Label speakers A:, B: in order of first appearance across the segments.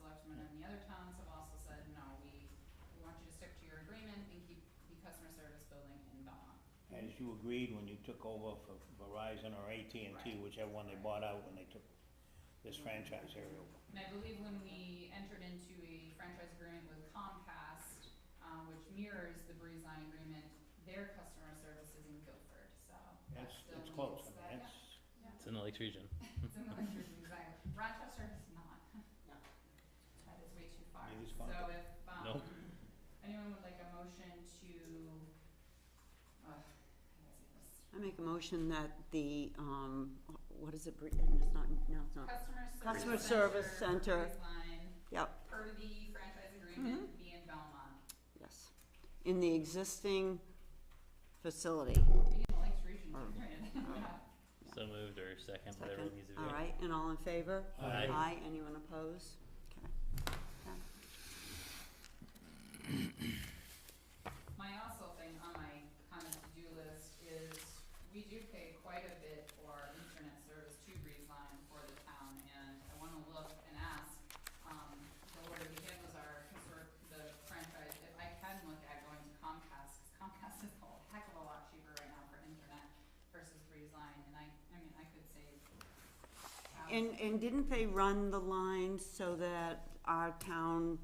A: the other towns have also said, no, we, we want you to stick to your agreement and keep the customer service building in Belmont.
B: As you agreed when you took over for Verizon or AT&T,
A: Right.
B: whichever one they bought out when they took this franchise area over.
A: And I believe when we entered into a franchise agreement with Comcast, um, which mirrors the Breeze Line agreement, their customer service is in Guilford, so that
B: That's,
A: still
B: it's
A: meets
B: close, I
A: that,
B: mean, that's,
A: yeah,
C: It's in the Lakes region.
A: yeah, it's in the Lakes Region, exactly. Rochester is not. That is way too far.
B: It is far.
A: So if, um,
C: Nope.
A: anyone would like a motion to, uh, I guess it was
D: I make a motion that the, um, what is it, Bre- it's not, no, it's not,
A: customer service.
D: Customer service center.
A: Breeze Line,
D: yep, Mm-hmm.
A: per the franchise agreement, be in Belmont.
D: yes. In the existing facility.
A: Be in the Lakes Region,
D: Oh.
A: granted. yeah.
C: So moved or second, whatever it needs to
D: Second,
C: be.
D: all right, and all in favor?
C: Aye.
D: Aye, anyone opposed? Okay. Okay.
A: My also thing on my kind of to-do list is, we do pay quite a bit for internet service to Breezeline for the town, and I wanna look and ask, um, the order we get was our, consor- the franchise, if I can look at going to Comcast, 'cause Comcast is a heck of a lot cheaper right now for internet versus Breezeline, and I, I mean, I could save. thousands.
D: And, and didn't they run the line so that our town,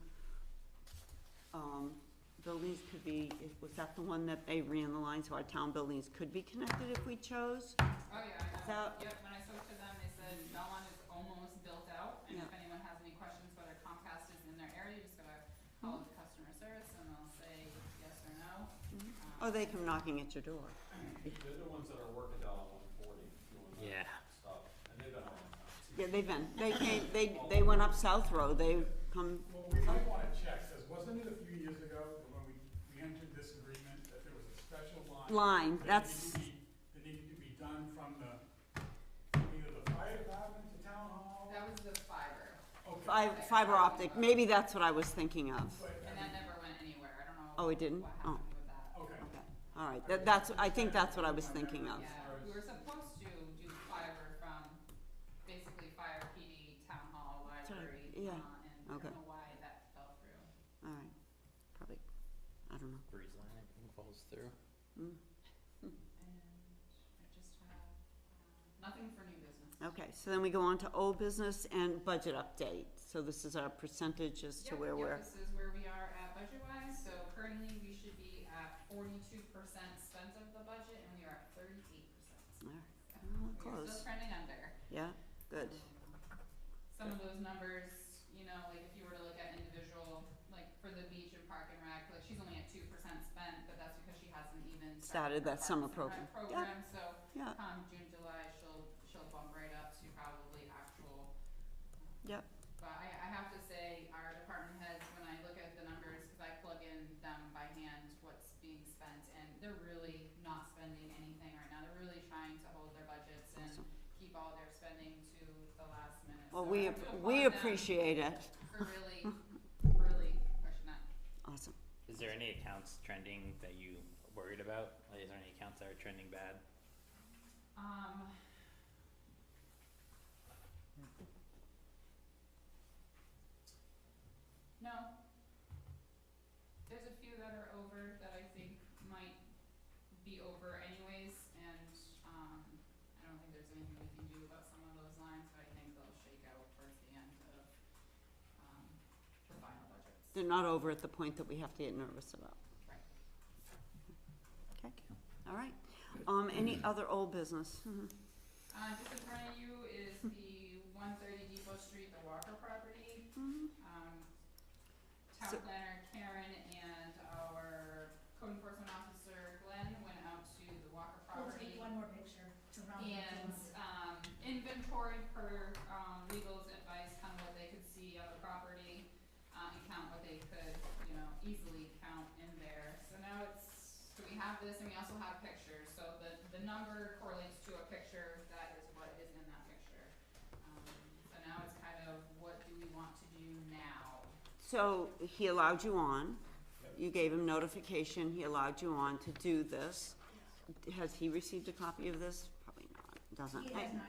D: um, buildings could be, was that the one that they ran the line so our town buildings could be connected if we chose?
A: Oh, yeah, I know,
D: Without-
A: yep, when I spoke to them, they said Belmont is almost built out, and if
D: Yeah.
A: anyone has any questions whether Comcast is in their area, you just gotta call
D: Mm-hmm.
A: the customer service and they'll say yes or no. Um,
D: Oh, they come knocking at your door.
E: They're the ones that are working down on one forty, doing that
C: Yeah.
E: stuff, and they've been on it.
D: Yeah, they've been, they came, they, they went up South Road, they come,
F: Well, we might wanna check, says, wasn't it a few years ago when we, we entered this agreement that there was a special line?
D: Line,
F: that
D: that's-
F: needed to be- That needed to be done from the, either the fire department to town hall?
A: That was the fiber,
F: Okay,
D: fi- fiber optic, maybe that's what I was thinking of.
F: but-
A: and that never went anywhere, I don't know.
D: Oh, it didn't?
A: What
D: Oh.
A: happened with that.
F: Okay,
D: Okay, all right, that, that's, I think that's what I was thinking of.
A: Yeah, we were supposed to do fiber from basically fire PD, town hall,
D: Sorry,
A: library, uh, and
D: yeah,
A: I don't
D: okay.
A: know why that fell through.
D: All right, probably, I don't know.
C: Breeze line, I think, falls through.
A: And I just have, uh, nothing for new business.
D: Okay, so then we go on to old business and budget update. So this is our percentage as to
A: Yep,
D: where
A: yep,
D: we're,
A: This is where we are at budget wise, so currently we should be at forty-two percent spent of the budget and we are at thirty-eight percent.
D: all right, well,
A: We're still
D: Oh, close.
A: trending under.
D: Yeah, good.
A: Some of those numbers, you know, like if you were to look at individual, like for the beach and park and rec, like she's only at two percent spent, but that's because she hasn't even started
D: Started
A: her
D: that summer
A: Parks and Rec
D: program. Yeah.
A: Program, so
D: Yeah,
A: come Um, June, July, she'll, she'll bump right up to probably actual
D: yep,
A: But I, I have to say, our department heads, when I look at the numbers, cause I plug in them by hand, what's being spent, and they're really not spending anything right now, they're really trying to hold their budgets and
D: awesome.
A: keep all their spending to the last minute.
D: Well,
A: So I
D: we,
A: have to
D: we
A: applaud them
D: appreciate it.
A: For really, really pushing that.
D: Awesome.
C: Is there any accounts trending that you worried about? Like, is there any accounts that are trending bad?
A: Um. No. There's a few that are over that I think might be over anyways, and, um, I don't think there's anything we can do about some of those lines, but I think they'll shake out towards the end of, um, the final budgets.
D: They're not over at the point that we have to get nervous about.
A: Right.
D: Okay, all right. Um, any other old business? Mhm.
A: Uh, just in front of you is the one thirty Depot Street, the Walker property.
D: Mhm.
A: um, town
D: So-
A: planner Karen and our code enforcement officer Glenn went out to the Walker
G: We'll
A: property.
G: take one more picture to round up.
A: And,
G: the-
A: um, inventory per, um, legal's advice, kind of what they could see of the property, uh, and count what they could, you know, easily count in there. So now it's, so we have this and we also have pictures, so the, the number correlates to a picture, that is what is in that picture. Um, so now it's kind of, what do we want to do now?
D: So he allowed you on, you gave him notification, he allowed you on to do this. Has he received a copy of this? Probably not, doesn't.
G: He has
D: Hey,
G: not,